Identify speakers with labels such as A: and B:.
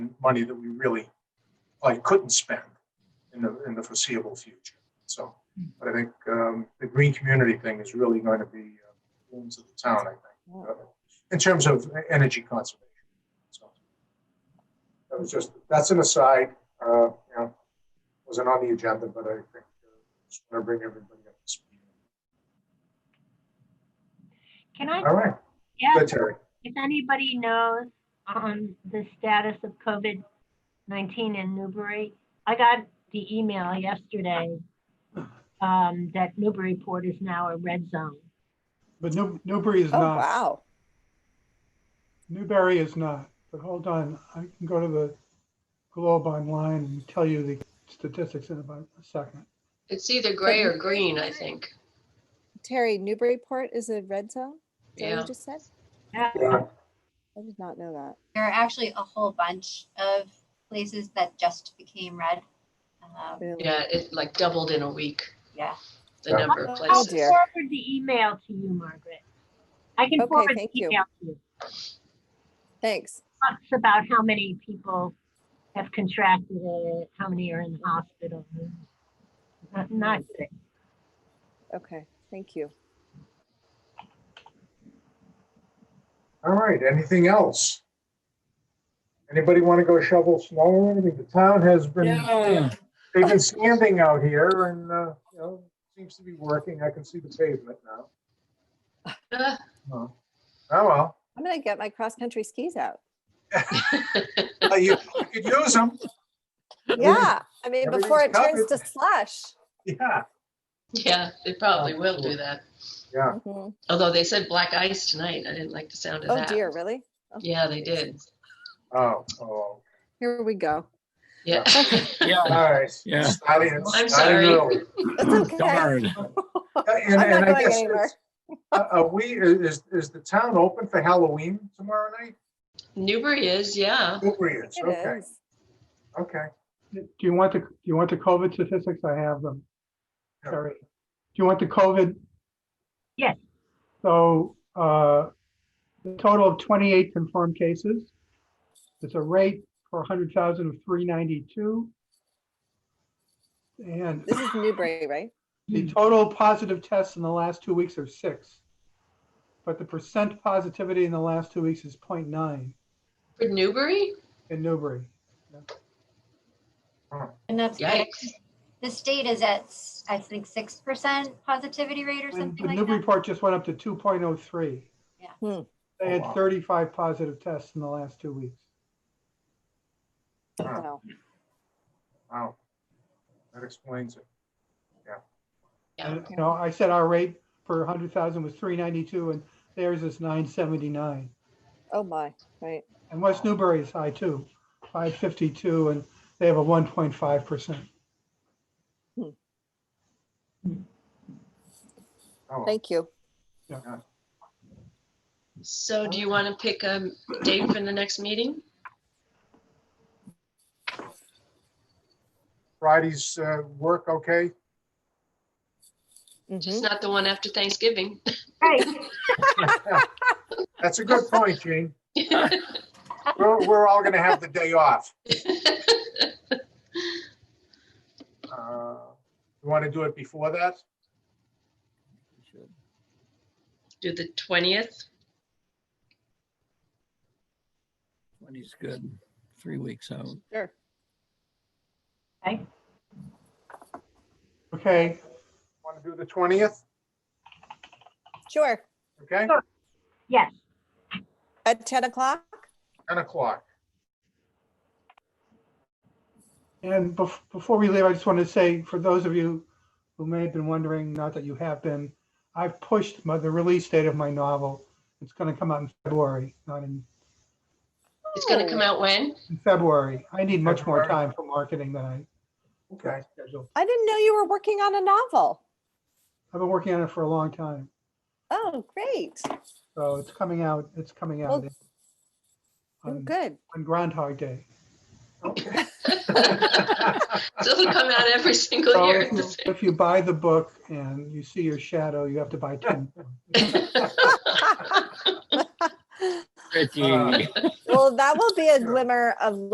A: money that we really like couldn't spend in the, in the foreseeable future. So, but I think um, the green community thing is really going to be uh, rooms of the town, I think, uh, in terms of energy conservation. So That was just, that's an aside, uh, you know, wasn't on the agenda, but I think uh, just want to bring everybody up to speed.
B: Can I
A: All right, good,
B: ask
A: Terry.
B: if anybody knows on the status of COVID-19 in Newbury? I got the email yesterday um, that Newburyport is now a red zone.
C: But New- Newbury is
D: Oh,
C: not,
D: wow.
C: Newbury is not. But hold on, I can go to the Globe online and tell you the statistics in about a second.
E: It's either gray or green, I think.
D: Terry, Newburyport is a red zone? Is that what
E: Yeah.
D: you just said?
B: Yeah,
A: Yeah,
D: I did not know that.
F: There are actually a whole bunch of places that just became red. Um,
D: Really.
E: Yeah, it like doubled in a week,
F: yeah.
E: the
A: Yeah.
E: number
D: Oh,
E: of
B: I'll
E: places.
D: dear.
B: forward the email to you, Margaret. I can
D: Okay,
B: forward the
D: thank you.
B: email to you.
D: Thanks.
B: Talks about how many people have contracted it, how many are in the hospital. Not- Not sick.
D: Okay, thank you.
A: All right, anything else? Anybody want to go shovel snow or anything? The town has been,
G: Yeah,
A: they've been standing out here and, uh, you know, seems to be working. I can see the pavement now.
E: Ah,
A: Oh, Oh, well,
D: I'm gonna get my cross-country skis out.
A: Uh, you you could use them.
D: Yeah, I mean, before it
A: everything's
D: turns to slush.
A: Yeah,
E: Yeah, they probably will do that.
A: yeah.
D: Mhm.
E: Although they said black ice tonight. I didn't like the sound of
D: Oh
E: that.
D: dear, really?
E: Yeah, they did.
A: Oh, oh.
D: Here we go.
E: Yeah.
G: yeah,
A: All right.
G: Yeah.
A: Starting-
E: I'm
A: starting
E: sorry.
A: early.
D: That's okay.
G: darn.
A: Uh, And,
D: I'm
A: and I
D: not going
A: guess,
D: anywhere.
A: it's- uh, uh, we, is, is the town open for Halloween tomorrow night?
E: Newbury is, yeah.
A: Newbury is, okay,
D: It is.
A: okay.
C: Do you want the, do you want the COVID statistics? I have them.
A: Yeah.
C: Terry, do you want the COVID?
B: Yes.
C: So, uh, the total of 28 confirmed cases. It's a rate per 100,000 of 392. And
D: This is Newbury, right?
A: Hmm.
C: The total positive tests in the last two weeks are six. But the percent positivity in the last two weeks is 0.9
E: For Newbury?
C: in Newbury.
F: And that's
E: Yikes.
F: the state is at I think six percent positivity rate or
C: And
F: something
C: the
F: like
C: Newbury
F: that.
C: report just went up to two point oh three.
F: Yeah.
D: Hmm.
C: They
A: Oh, wow.
C: had thirty-five positive tests in the last two weeks.
A: Huh,
D: Wow.
A: Wow. That explains it.
E: Yeah.
C: And, you know, I said our rate per hundred thousand was three ninety-two and theirs is nine seventy-nine.
D: Oh my, right.
C: And West Newbury is high too, five fifty-two, and they have a one point five percent.
A: Oh, well.
D: Thank you.
E: So do you want to pick a date for the next meeting?
A: Friday's uh, work, okay?
E: Just
D: Mhm.
E: not the one after Thanksgiving.
B: Right,
A: That's a good point, Gene. We're, we're all gonna have the day off. Uh, You want to do it before that?
E: Do the 20th?
G: Money's good. Three weeks out.
D: Sure.
B: okay.
C: Okay,
A: Want to do the 20th?
D: Sure.
A: Okay,
B: Sure. Yes,
D: At ten o'clock?
A: 10 o'clock.
C: And bef- before we leave, I just want to say, for those of you who may have been wondering, not that you have been, I've pushed my, the release date of my novel. It's going to come out in February, not in,
E: It's going to come out when?
C: in February. I need much more
A: February.
C: time for marketing than I
A: Okay.
C: scheduled.
D: I didn't know you were working on a novel.
C: I've been working on it for a long time,
D: Oh, great.
A: Um,
C: so it's coming out, it's coming
D: Well,
C: out
D: Oh,
C: on
D: Good.
C: on Groundhog Day.
A: Okay.
E: Doesn't come out every single
C: So
E: year.
C: if you- if you buy the book and you see your shadow, you have to buy 10.
G: Pretty.
A: Uh,
G: Uh,
D: Well, that will be a
A: Sure.
D: glimmer of